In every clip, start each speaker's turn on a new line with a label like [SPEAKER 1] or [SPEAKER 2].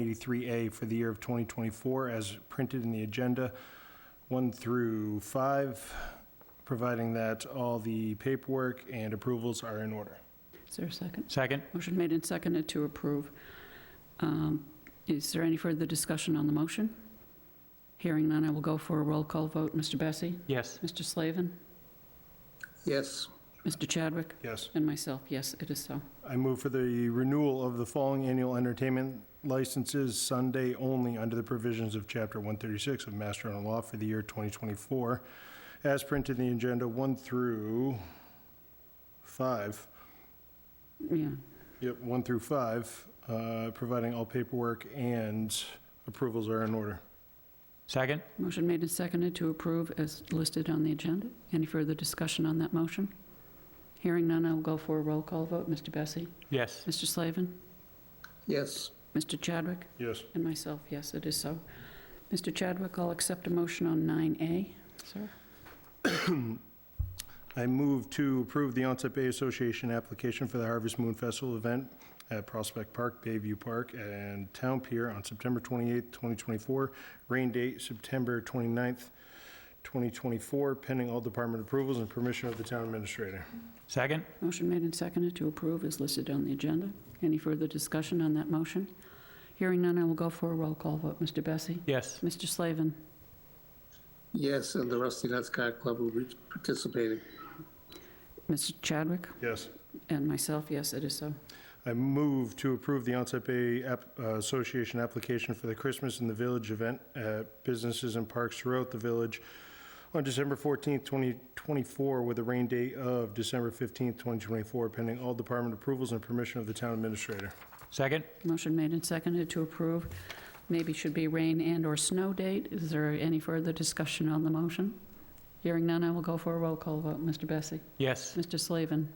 [SPEAKER 1] 183A for the year of 2024 as printed in the agenda, 1 through 5, providing that all the paperwork and approvals are in order.
[SPEAKER 2] Is there a second?
[SPEAKER 3] Second?
[SPEAKER 2] Motion made and seconded to approve. Um, Is there any further discussion on the motion? Hearing none, I will go for a roll call vote. Mr. Bessie?
[SPEAKER 3] Yes.
[SPEAKER 2] Mr. Slavin?
[SPEAKER 4] yes,
[SPEAKER 2] Mr. Chadwick?
[SPEAKER 1] Yes.
[SPEAKER 2] And myself, yes, it is so.
[SPEAKER 1] I move for the renewal of the following annual entertainment licenses Sunday only under the provisions of Chapter 136 of Mass General Law for the year 2024, as printed in the agenda 1 through 5.
[SPEAKER 2] Yeah,
[SPEAKER 1] Yep, 1 through 5, uh, providing all paperwork and approvals are in order.
[SPEAKER 3] Second?
[SPEAKER 2] motion made and seconded to approve as listed on the agenda. Any further discussion on that motion? Hearing none, I will go for a roll call vote. Mr. Bessie?
[SPEAKER 3] Yes.
[SPEAKER 2] Mr. Slavin?
[SPEAKER 4] yes,
[SPEAKER 2] Mr. Chadwick?
[SPEAKER 1] Yes.
[SPEAKER 2] And myself, yes, it is so. Mr. Chadwick, I'll accept a motion on 9A, sir.
[SPEAKER 1] I move to approve the Onset Bay Association application for the Harvest Moon Festival event at Prospect Park, Bayview Park, and Town Pier on September 28th, 2024. Rain date, September 29th, 2024, pending all department approvals and permission of the town administrator.
[SPEAKER 3] Second?
[SPEAKER 2] Motion made and seconded to approve is listed on the agenda. Any further discussion on that motion? Hearing none, I will go for a roll call vote. Mr. Bessie?
[SPEAKER 3] Yes.
[SPEAKER 2] Mr. Slavin?
[SPEAKER 4] yes, and the Rusty Nut Card Club will be participating.
[SPEAKER 2] Mr. Chadwick?
[SPEAKER 1] Yes.
[SPEAKER 2] And myself, yes, it is so.
[SPEAKER 1] I move to approve the Onset Bay App- uh, Association application for the Christmas in the Village event at businesses and parks throughout the village on December 14th, 2024, with a rain date of December 15th, 2024, pending all department approvals and permission of the town administrator.
[SPEAKER 3] Second?
[SPEAKER 2] Motion made and seconded to approve. Maybe should be rain and/or snow date. Is there any further discussion on the motion? Hearing none, I will go for a roll call vote. Mr. Bessie?
[SPEAKER 3] Yes.
[SPEAKER 2] Mr. Slavin?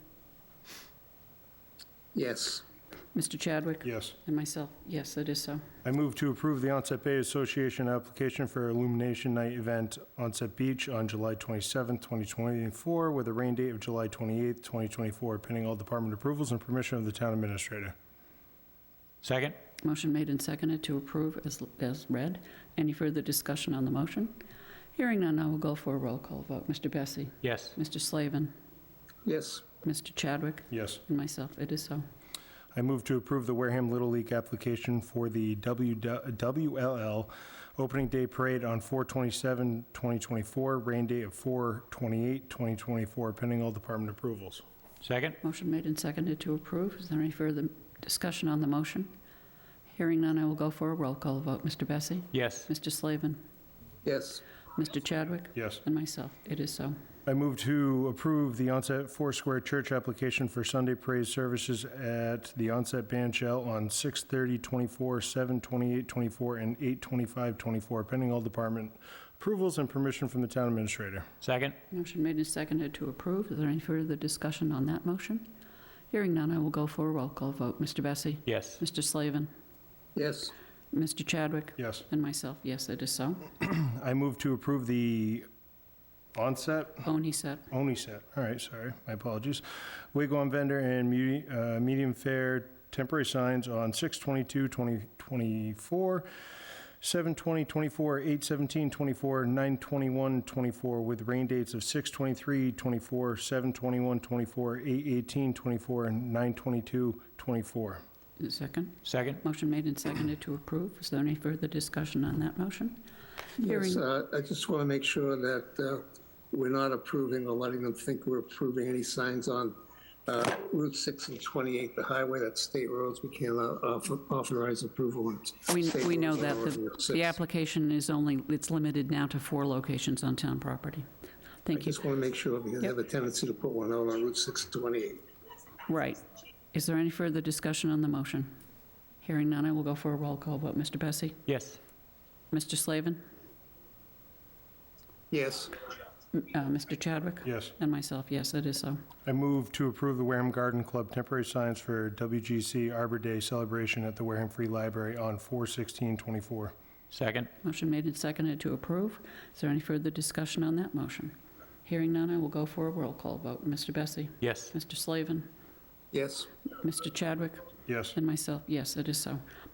[SPEAKER 4] Yes,
[SPEAKER 2] Mr. Chadwick?
[SPEAKER 1] Yes.
[SPEAKER 2] And myself, yes, it is so.
[SPEAKER 1] I move to approve the Onset Bay Association application for Illumination Night event Onset Beach on July 27th, 2024, with a rain date of July 28th, 2024, pending all department approvals and permission of the town administrator.
[SPEAKER 3] Second?
[SPEAKER 2] Motion made and seconded to approve as, as read. Any further discussion on the motion? Hearing none, I will go for a roll call vote. Mr. Bessie?
[SPEAKER 3] Yes.
[SPEAKER 2] Mr. Slavin?
[SPEAKER 4] yes,
[SPEAKER 2] Mr. Chadwick?
[SPEAKER 1] Yes.
[SPEAKER 2] And myself, it is so.
[SPEAKER 1] I move to approve the Wareham Little League application for the W- WLL Opening Day Parade on 4/27/2024, rain date of 4/28/2024, pending all department approvals.
[SPEAKER 3] Second?
[SPEAKER 2] Motion made and seconded to approve. Is there any further discussion on the motion? Hearing none, I will go for a roll call vote. Mr. Bessie?
[SPEAKER 3] Yes.
[SPEAKER 2] Mr. Slavin?
[SPEAKER 4] yes,
[SPEAKER 2] Mr. Chadwick?
[SPEAKER 1] Yes.
[SPEAKER 2] And myself, it is so.
[SPEAKER 1] I move to approve the Onset Foursquare Church application for Sunday praise services at the Onset Band Shell on 6/30/24, 7/28/24, and 8/25/24, pending all department approvals and permission from the town administrator.
[SPEAKER 3] Second?
[SPEAKER 2] Motion made and seconded to approve. Is there any further discussion on that motion? Hearing none, I will go for a roll call vote. Mr. Bessie?
[SPEAKER 3] Yes.
[SPEAKER 2] Mr. Slavin?
[SPEAKER 4] yes,
[SPEAKER 2] Mr. Chadwick?
[SPEAKER 1] Yes.
[SPEAKER 2] And myself, yes, it is so.
[SPEAKER 1] I move to approve the onset,
[SPEAKER 2] Boni set.
[SPEAKER 1] only set, all right, sorry, my apologies. Wigwam vendor and medi- uh, medium fare temporary signs on 6/22/2024, 7/20/24, 8/17/24, 9/21/24 with rain dates of 6/23/24, 7/21/24, 8/18/24, and 9/22/24.
[SPEAKER 2] Second.
[SPEAKER 3] Second?
[SPEAKER 2] Motion made and seconded to approve. Is there any further discussion on that motion?
[SPEAKER 4] yes.
[SPEAKER 2] Hearing-
[SPEAKER 4] uh, I just want to make sure that uh, we're not approving or letting them think we're approving any signs on uh, Route 6 and 28, the highway, that's state roads, we can't uh, author- authorize approval on
[SPEAKER 2] We,
[SPEAKER 4] state
[SPEAKER 2] we know
[SPEAKER 4] roads
[SPEAKER 2] that
[SPEAKER 4] on
[SPEAKER 2] the,
[SPEAKER 4] Route
[SPEAKER 2] the
[SPEAKER 4] six.
[SPEAKER 2] application is only, it's limited now to four locations on town property. Thank you.
[SPEAKER 4] Just want to make sure, because they have a tendency to put one out on Route 6 and 28.
[SPEAKER 2] Right. Is there any further discussion on the motion? Hearing none, I will go for a roll call vote. Mr. Bessie?
[SPEAKER 3] Yes.
[SPEAKER 2] Mr. Slavin?
[SPEAKER 4] Yes,
[SPEAKER 2] M- uh, Mr. Chadwick?
[SPEAKER 1] Yes.
[SPEAKER 2] And myself, yes, it is so.
[SPEAKER 1] I move to approve the Wareham Garden Club temporary signs for WGC Arbor Day celebration at the Wareham Free Library on 4/16/24.
[SPEAKER 3] Second?
[SPEAKER 2] Motion made and seconded to approve. Is there any further discussion on that motion? Hearing none, I will go for a roll call vote. Mr. Bessie?
[SPEAKER 3] Yes.
[SPEAKER 2] Mr. Slavin?
[SPEAKER 4] yes,
[SPEAKER 2] Mr. Chadwick?
[SPEAKER 1] Yes.
[SPEAKER 2] And myself, yes, it is so.